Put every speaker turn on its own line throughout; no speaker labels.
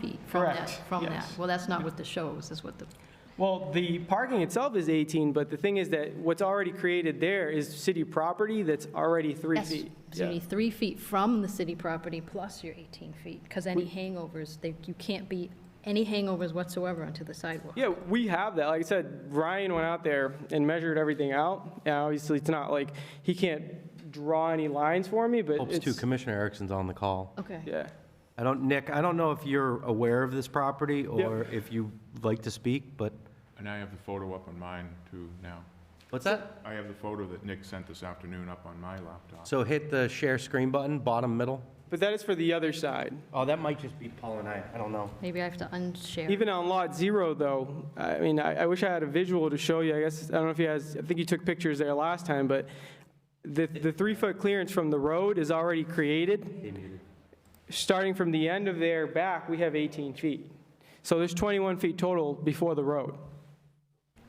from that,
Correct,
from that.
yes.
Well, that's not what the shows, is what the,
Well, the parking itself is 18, but the thing is that what's already created there is city property that's already three
yes.
feet.
So you
Yeah.
need three feet from the city property plus your 18 feet, because any hangovers, they, you can't be, any hangovers whatsoever onto the sidewalk.
Yeah, we have that. Like I said, Ryan went out there and measured everything out. And obviously, it's not like, he can't draw any lines for me, but
Hopes too,
it's,
Commissioner Erickson's on the call.
Okay.
yeah.
I don't, Nick, I don't know if you're aware of this property or if you like to speak, but,
And I have the photo up on mine too now.
what's that?
I have the photo that Nick sent this afternoon up on my laptop.
So hit the share screen button, bottom middle.
But that is for the other side.
Oh, that might just be Paul and I, I don't know.
Maybe I have to unshare.
Even on lot zero, though, I mean, I, I wish I had a visual to show you. I guess, I don't know if you guys, I think you took pictures there last time, but the, the three-foot clearance from the road is already created. Starting from the end of there back, we have 18 feet. So there's 21 feet total before the road,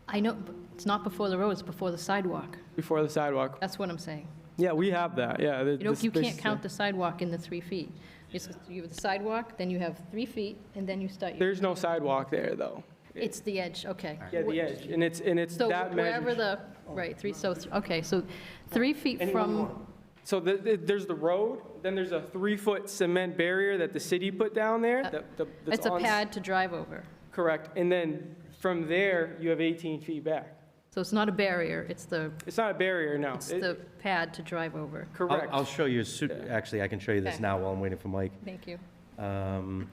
I know, but it's not before the road, it's before the sidewalk.
before the sidewalk.
That's what I'm saying.
Yeah, we have that, yeah. the-
You don't,
the
you
space
can't
is
count
there.
the sidewalk in the three feet. It's, you have the sidewalk, then you have three feet, and then you start your,
There's no sidewalk there, though.
it's the edge, okay.
Yeah, the edge, and it's, and it's
So
that
wherever
measure.
the, right, three, so, th- okay, so three feet from,
So the- the- there's the road, then there's a three-foot cement barrier that the city put down there.
Uh,
that- that- that's
it's a
on-
pad to drive over.
Correct, and then from there, you have 18 feet back.
So it's not a barrier, it's the,
It's not a barrier, no.
it's
It-
the pad to drive over.
Correct.
I'll, I'll show you, su-
Yeah.
actually, I can show you this
Okay.
now while I'm waiting for Mike.
Thank you.
Um,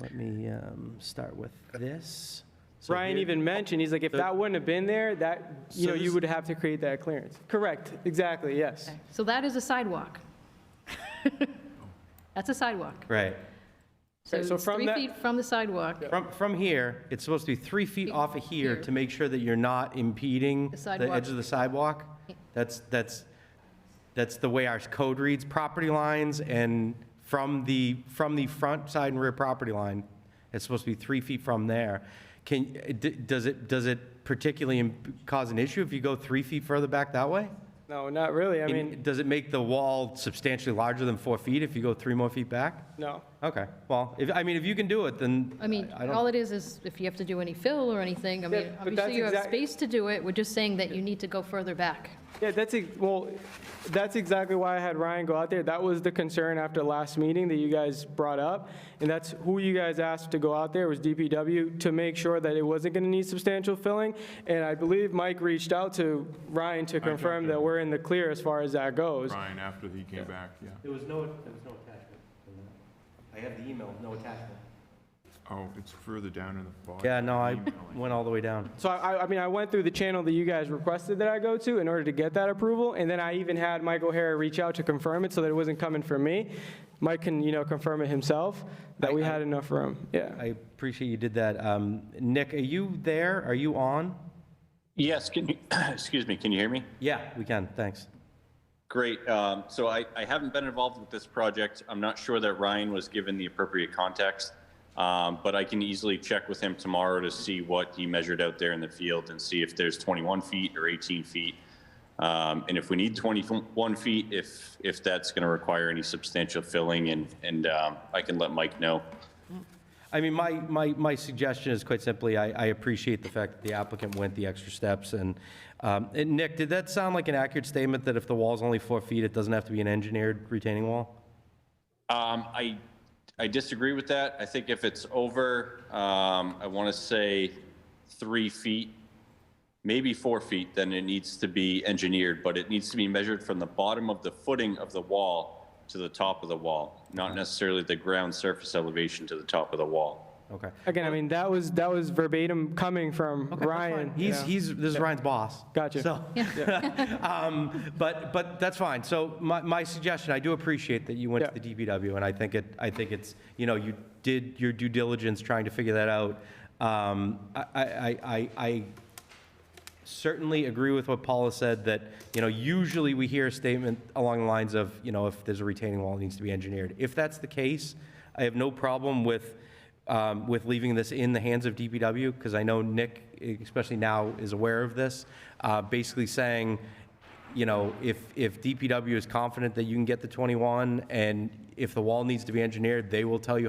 Let me um, start with this. So
Ryan
here-
even mentioned, he's like, if
So-
that wouldn't have been there, that, you
So
know, you
this-
would have to create that clearance. Correct, exactly, yes.
Okay. So that is a sidewalk. That's a sidewalk.
Right.
So
Okay, so
it's
from
three
that-
feet from the sidewalk,
From, from here, it's supposed to be three feet
Feet
off of here
here.
to make sure that you're not impeding
The
the
sidewalk.
edge of the sidewalk. That's, that's, that's the way our code reads, property lines and from the, from the front side and rear property line, it's supposed to be three feet from there. Can, d- does it, does it particularly im- cause an issue if you go three feet further back that way?
No, not really, I
And
mean,
Does it make the wall substantially larger than four feet if you go three more feet back?
no.
Okay, well, if, I mean, if you can do it, then.
I mean,
don't-
all it is, is if you have to do any fill or anything, I mean,
Yeah, but that's
obviously you have
exact-
space to do it, we're just saying that you need to go further back.
Yeah, that's, ex- well, that's exactly why I had Ryan go out there. That was the concern after last meeting that you guys brought up. And that's who you guys asked to go out there was DPW to make sure that it wasn't going to need substantial filling. And I believe Mike reached out to Ryan to
talked
confirm
to
that
him.
we're in the clear as far as that goes.
Brian, after he came back, yeah.
There was no, there was no attachment. I have the email, no attachment.
Oh, it's further down in the bottom.
Yeah, no, I
Emailing.
went all the way down.
So I, I- I mean, I went through the channel that you guys requested that I go to in order to get that approval, and then I even had Mike O'Hara reach out to confirm it so that it wasn't coming from me. Mike can, you know, confirm it himself, that we
I- I-
had enough room, yeah.
I appreciate you did that. Um, Nick, are you there? Are you on?
Yes, can you, excuse me, can you hear me?
Yeah, we can, thanks.
Great. Um, so I, I haven't been involved with this project. I'm not sure that Ryan was given the appropriate context, um, but I can easily check with him tomorrow to see what he measured out there in the field and see if there's 21 feet or 18 feet. Um, and if we need 21 feet, if if that's going to require any substantial filling, and and um, I can let Mike know.
I mean, my, my, my suggestion is quite simply, I, I appreciate the fact that the applicant went the extra steps, and, um, and Nick, did that sound like an accurate statement, that if the wall's only four feet, it doesn't have to be an engineered retaining wall?
Um, I, I disagree with that. I think if it's over, um, I want to say three feet, maybe four feet, then it needs to be engineered, but it needs to be measured from the bottom of the footing of the wall to the top of the wall, not necessarily the ground surface elevation to the top of the wall.
Okay.
Again, I mean, that was, that was verbatim coming from Ryan.
He's,
yeah.
he's, this is Ryan's boss.
Gotcha.
So, um, but, but that's fine. So my, my suggestion, I do appreciate that you went to
Yeah.
the DPW, and I think it, I think it's, you know, you did your due diligence trying to figure that out. Um, I, I, I- I, I certainly agree with what Paula said, that, you know, usually we hear a statement along the lines of, you know, if there's a retaining wall, it needs to be engineered. If that's the case, I have no problem with, um, with leaving this in the hands of DPW, because I know Nick, especially now, is aware of this, uh, basically saying, you know, if, if DPW is confident that you can get the 21, and if the wall needs to be engineered, they will tell you